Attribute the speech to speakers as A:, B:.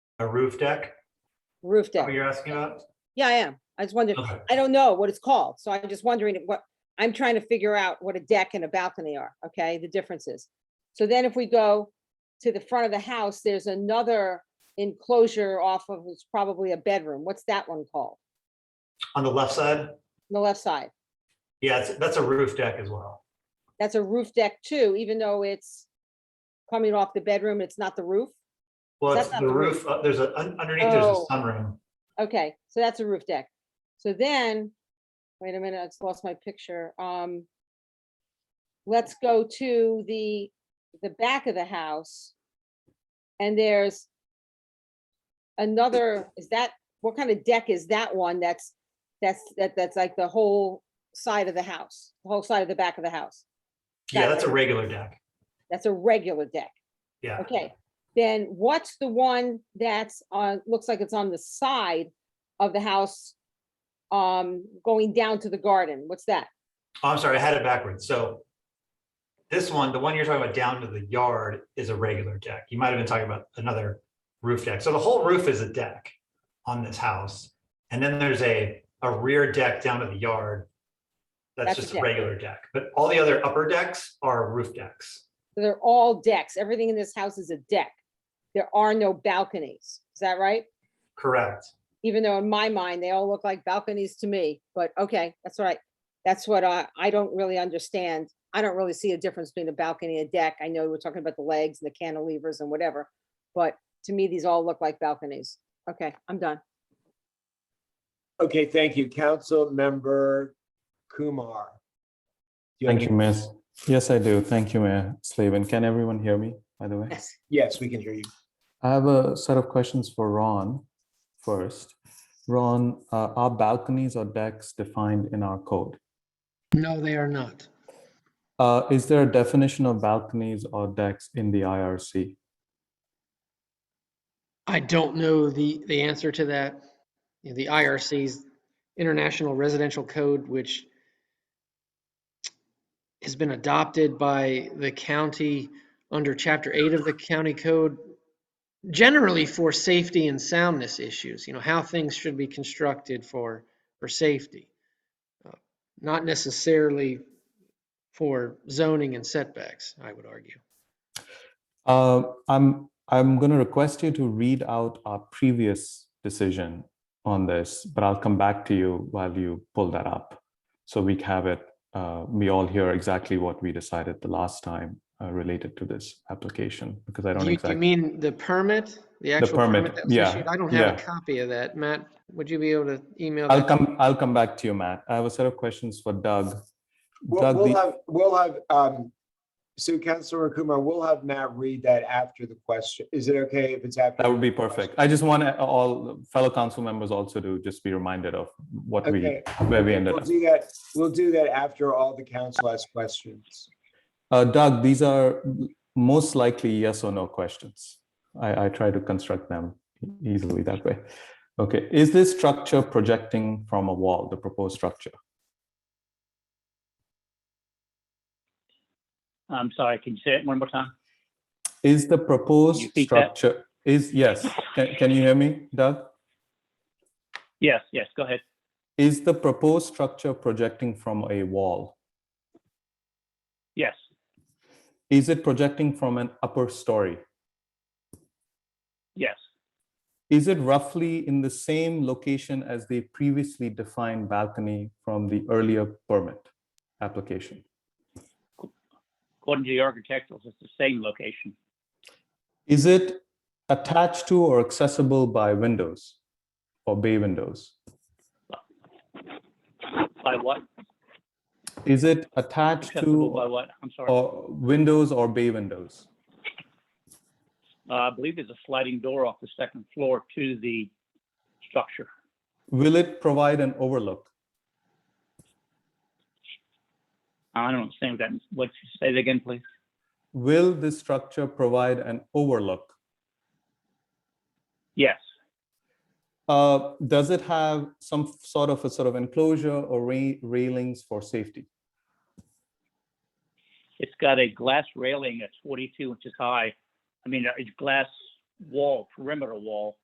A: A roof deck?
B: roof
A: What
B: deck.
A: you're asking about?
B: Yeah, I am. I just wondered,
A: Oh, Okay.
B: I don't know what it's called, so I'm just wondering what, I'm trying to figure out what a deck and a balcony are, okay, the differences. So then if we go to the front of the house, there's another enclosure off of, it's probably a bedroom. What's that one called?
A: On the left side?
B: On The left side.
A: Yeah, it's- that's a roof deck as well.
B: That's a roof deck too, even though it's coming off the bedroom, it's not the roof.
A: Well,
B: That's
A: it's
B: not
A: the
B: the roof.
A: roof, uh, there's a, un- underneath there's
B: Oh.
A: a sunroom.
B: Okay, so that's a roof deck. So then, wait a minute, I just lost my picture. Um, let's go to the, the back of the house. And there's another, is that, what kind of deck is that one that's, that's, that, that's like the whole side of the house, the whole side of the back of the house?
A: Yeah,
B: That
A: that's a
B: way.
A: regular deck.
B: That's a regular deck.
A: Yeah.
B: Okay, then what's the one that's on, looks like it's on the side of the house? Um, going down to the garden, what's that?
A: Oh, I'm sorry, I had it backwards. So this one, the one you're talking about down to the yard is a regular deck. You might have been talking about another roof deck. So the whole roof is a deck on this house. And then there's a, a rear deck down to the yard. That's
B: That's a
A: just a
B: deck.
A: regular deck, but all the other upper decks are roof decks.
B: They're all decks, everything in this house is a deck. There are no balconies, is that right?
A: Correct.
B: Even though in my mind, they all look like balconies to me, but okay, that's all right. That's what I, I don't really understand. I don't really see a difference between a balcony and a deck. I know we're talking about the legs and the cantilevers and whatever, but to me, these all look like balconies. Okay, I'm done.
C: Okay, thank you. Councilmember Kumar. Do have
D: Thank you,
C: any-
D: Miss. Yes, I do. Thank you, Mayor Slavin. Can everyone hear me, by the way?
B: Yes.
C: Yes, we can hear you.
D: I have a set of questions for Ron first. Ron, uh, are balconies or decks defined in our code?
E: No, they are not.
D: Uh, Is there a definition of balconies or decks in the IRC?
E: I don't know the, the answer to that. You know, The IRC's International Residential Code, which has been adopted by the county under Chapter 8 of the county code, generally for safety and soundness issues, you know, how things should be constructed for, for safety. Uh, Not necessarily for zoning and setbacks, I would argue.
D: Uh, I'm, I'm going to request you to read out our previous decision on this, but I'll come back to you while you pull that up. So we have it, uh, we all hear exactly what we decided the last time uh, related to this application, because I don't
E: You, you
D: exactly.
E: mean the permit, the actual
D: permit,
E: permit that was
D: yeah,
E: issued? I don't have a
D: yeah.
E: copy of that. Matt, would you be able to email
D: I'll
E: that? to me?
D: come, I'll come back to you, Matt. I have a set of questions for Doug.
C: We'll
D: Doug,
C: we'll
D: the-
C: have, we'll have, um, so Councilmember Kumar, we'll have Matt read that after the question. Is it okay if it's after?
D: That would be perfect. I just want all fellow council members also to just be reminded of what we,
C: Okay.
D: where we ended
C: We'll
D: up.
C: do that, we'll do that after all the council has questions.
D: Uh, Doug, these are most likely yes or no questions. I, I try to construct them easily that way. Okay, is this structure projecting from a wall, the proposed structure?
F: I'm sorry, Um, can you say it one more time?
D: Is the proposed
F: You speak that-
D: structure, is, yes, can, can you hear me, Doug?
F: Yes, yes, go ahead.
D: Is the proposed structure projecting from a wall?
F: Yes,
D: Is it projecting from an upper story?
F: yes,
D: Is it roughly in the same location as the previously defined balcony from the earlier permit application?
F: according to the architecturals, it's the same location.
D: Is it attached to or accessible by windows or bay windows?
F: By what?
D: Is it attached
F: Accessible by
D: to
F: what? I'm sorry.
D: or windows or bay windows?
F: Uh, I believe there's a sliding door off the second floor to the structure.
D: Will it provide an overlook?
F: I don't understand what that, what, say that again, please?
D: Will this structure provide an overlook?
F: Yes,
D: Uh, Does it have some sort of a sort of enclosure or ra- railings for safety?
F: it's got a glass railing that's 42 inches high. I mean, a glass uh, wall, perimeter wall